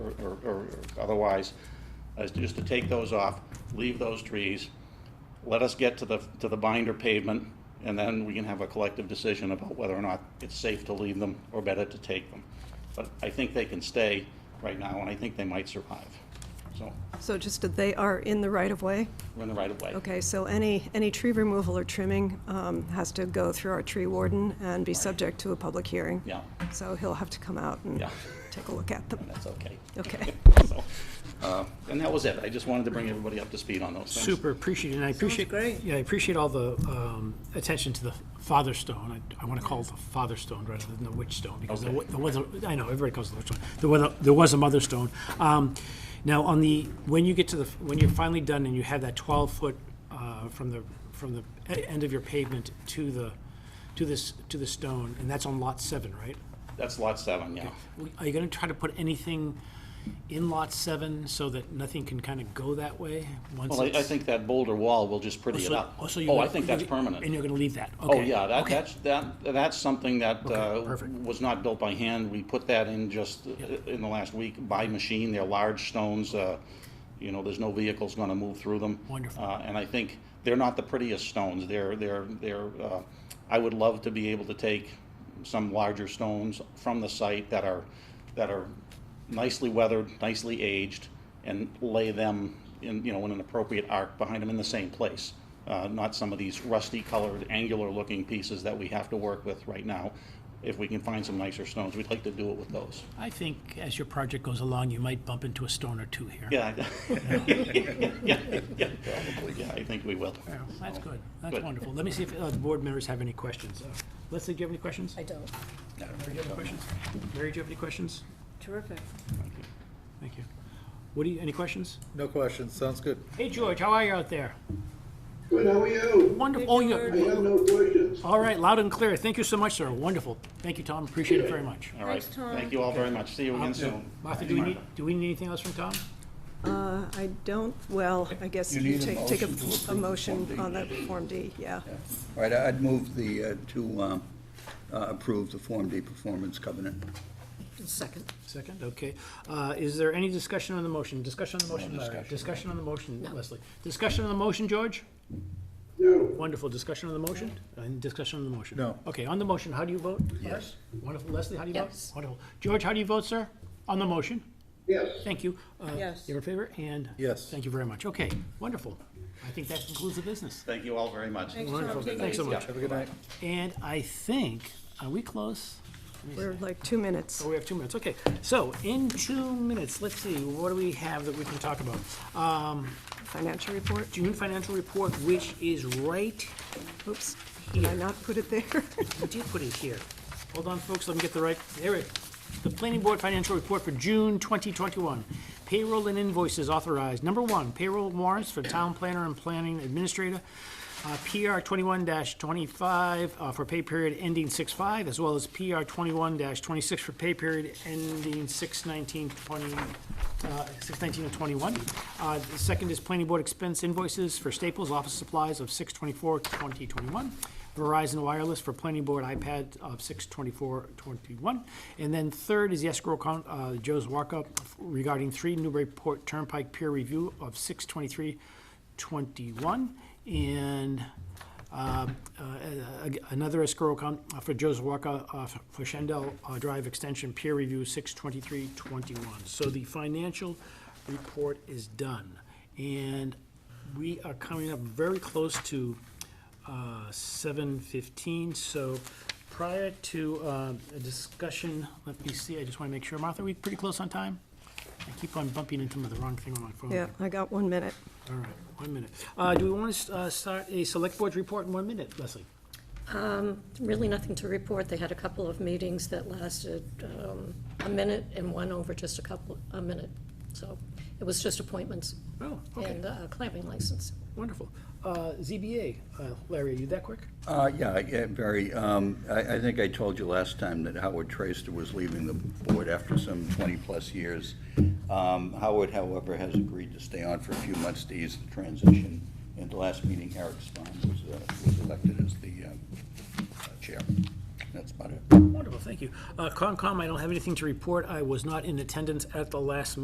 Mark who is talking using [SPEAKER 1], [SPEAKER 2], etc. [SPEAKER 1] or, or- or otherwise, is just to take those off, leave those trees, let us get to the, to the binder pavement, and then we can have a collective decision about whether or not it's safe to leave them or better to take them. But I think they can stay right now, and I think they might survive. So,
[SPEAKER 2] So just that they are in the right-of-way?
[SPEAKER 1] we're in the right of way.
[SPEAKER 2] Okay, so any, any tree removal or trimming um, has to go through our tree warden and be subject to a public hearing?
[SPEAKER 1] Yeah,
[SPEAKER 2] So he'll have to come out and
[SPEAKER 1] Yeah.
[SPEAKER 2] take a look at them.
[SPEAKER 1] and that's okay.
[SPEAKER 2] Okay.
[SPEAKER 1] So, uh, And that was it. I just wanted to bring everybody up to speed on those things.
[SPEAKER 3] Super appreciated, and I appreciate.
[SPEAKER 4] great.
[SPEAKER 3] Yeah, I appreciate all the um, attention to the father stone. I, I want to call it the father stone rather than the witch stone, because there wa- there was, a- I know, everybody calls it the witch stone. There was, a- there was a mother stone. Um, Now, on the, when you get to the, when you're finally done and you have that 12-foot from the, from the e- end of your pavement to the, to this, to the stone, and that's on Lot 7, right?
[SPEAKER 1] That's lot seven, yeah.
[SPEAKER 3] We- Are you going to try to put anything in Lot 7 so that nothing can kind of go that way? once
[SPEAKER 1] Well, I, I
[SPEAKER 3] it's-
[SPEAKER 1] think that boulder wall will just pretty it
[SPEAKER 3] so-
[SPEAKER 1] up.
[SPEAKER 3] Oh, so you're
[SPEAKER 1] Oh, I
[SPEAKER 3] gonna-
[SPEAKER 1] think
[SPEAKER 3] you're
[SPEAKER 1] that's
[SPEAKER 3] gonna- And
[SPEAKER 1] permanent.
[SPEAKER 3] you're gonna leave that?
[SPEAKER 1] Oh,
[SPEAKER 3] Okay,
[SPEAKER 1] yeah, that,
[SPEAKER 3] okay.
[SPEAKER 1] that's, that, that's something that,
[SPEAKER 3] Okay,
[SPEAKER 1] uh,
[SPEAKER 3] perfect.
[SPEAKER 1] was not built by hand. We put that in just uh, in the last week by machine. They're large stones, uh, you know, there's no vehicles gonna move through them.
[SPEAKER 3] Wonderful.
[SPEAKER 1] Uh, and I think they're not the prettiest stones. They're, they're, they're, uh, I would love to be able to take some larger stones from the site that are, that are nicely weathered, nicely aged, and lay them in, you know, in an appropriate arc behind them in the same place. Uh, not some of these rusty colored, angular looking pieces that we have to work with right now. If we can find some nicer stones, we'd like to do it with those.
[SPEAKER 3] I think as your project goes along, you might bump into a stone or two here.
[SPEAKER 1] Yeah. Probably. Yeah, I think we will.
[SPEAKER 3] Yeah, That's good, that's
[SPEAKER 1] Oh, Good.
[SPEAKER 3] wonderful. Let me see if uh, the board members have any questions. Uh, Leslie, do you have any questions?
[SPEAKER 4] I don't.
[SPEAKER 3] Mary, do you have any questions? Mary, do you have any questions?
[SPEAKER 4] Terrific.
[SPEAKER 3] Thank you. Woody, any questions?
[SPEAKER 5] No questions, sounds good.
[SPEAKER 3] Hey, George, how are you out there?
[SPEAKER 6] Good, how are you?
[SPEAKER 3] Wonderful, oh,
[SPEAKER 6] I
[SPEAKER 3] you,
[SPEAKER 6] have no questions.
[SPEAKER 3] all right, loud and clear. Thank you so much, sir. Wonderful. Thank you, Tom, appreciate it very much.
[SPEAKER 1] All right,
[SPEAKER 4] Thanks, Tom.
[SPEAKER 1] thank you all very much. See you again soon.
[SPEAKER 3] Martha, do we need, do we need anything else from Tom?
[SPEAKER 2] Uh, I don't, well, I guess
[SPEAKER 7] You
[SPEAKER 2] you
[SPEAKER 7] need a
[SPEAKER 2] take, take a,
[SPEAKER 7] motion to approve
[SPEAKER 2] a
[SPEAKER 7] the Form
[SPEAKER 2] motion
[SPEAKER 7] D.
[SPEAKER 2] on that Form D, yeah.
[SPEAKER 7] All right, I'd move the, uh, to um, uh, approve the Form D performance covenant.
[SPEAKER 4] Second.
[SPEAKER 3] Second, okay. Uh, Is there any discussion on the motion? Discussion on the motion, Larry? Discussion on the motion, Leslie? Discussion on the motion, George?
[SPEAKER 6] No,
[SPEAKER 3] Wonderful. Discussion on the motion? And discussion on the motion?
[SPEAKER 5] No.
[SPEAKER 3] Okay, on the motion, how do you vote?
[SPEAKER 7] Yes.
[SPEAKER 3] Wonderful. Leslie, how do you vote?
[SPEAKER 4] Yes.
[SPEAKER 3] Wonderful. George, how do you vote, sir? On the motion?
[SPEAKER 6] yes.
[SPEAKER 3] Thank you. Uh,
[SPEAKER 4] Yes.
[SPEAKER 3] You're in favor? And?
[SPEAKER 5] Yes.
[SPEAKER 3] Thank you very much. Okay, wonderful. I think that concludes the business.
[SPEAKER 1] Thank you all very much.
[SPEAKER 3] Thanks so much.
[SPEAKER 5] Have a good night.
[SPEAKER 3] And I think, are we close?
[SPEAKER 2] We're like two minutes.
[SPEAKER 3] Oh, we have two minutes, okay. So in two minutes, let's see, what do we have that we can talk about? Um,
[SPEAKER 2] Financial report,
[SPEAKER 3] June financial report, which is right,
[SPEAKER 2] oops, did I not put it there?
[SPEAKER 3] we did put it here. Hold on, folks, let me get the right, there it, the planning board financial report for June 2021. Payroll and invoices authorized. Number one, payroll warrants for town planner and planning administrator. uh, PR 21-25 uh, for pay period ending 6/5, as well as PR 21-26 for pay period ending 6/19/20, uh, 619 and 21. Uh, The second is planning board expense invoices for Staples office supplies of 6/24/2021, Verizon Wireless for planning board iPad of 6/24/21. And then third is the escrow account, uh, Joe's walk-up regarding 3 Newburyport Turnpike peer review of 6/23/21. And uh, uh, ag- another escrow account uh, for Joe's Walker uh, f- for Shandell uh, Drive Extension Peer Review 62321. So the financial report is done. And we are coming up very close to uh, 7:15. So prior to uh, a discussion, let me see, I just want to make sure, Martha, are we pretty close on time? I keep on bumping into the wrong thing on my phone.
[SPEAKER 2] Yeah, I got one minute.
[SPEAKER 3] All right, one minute. Uh, Do we want to start a select board's report in one minute, Leslie?
[SPEAKER 4] Um, Really nothing to report. They had a couple of meetings that lasted um, a minute and one over just a couple, a minute. So it was just appointments
[SPEAKER 3] Oh, okay,
[SPEAKER 4] and uh, clamping license.
[SPEAKER 3] wonderful. Uh, ZBA, uh, Larry, are you that quick?
[SPEAKER 7] Uh, Yeah, yeah, Barry, um, I I think I told you last time that Howard Traster was leaving the board after some 20-plus years. Um, Howard, however, has agreed to stay on for a few months to ease the transition. And the last meeting, Eric Spahn was uh, was elected as the um, uh, chair. That's about it.
[SPEAKER 3] Wonderful, thank you. Uh, Concom, I don't have anything to report. I was not in attendance at the last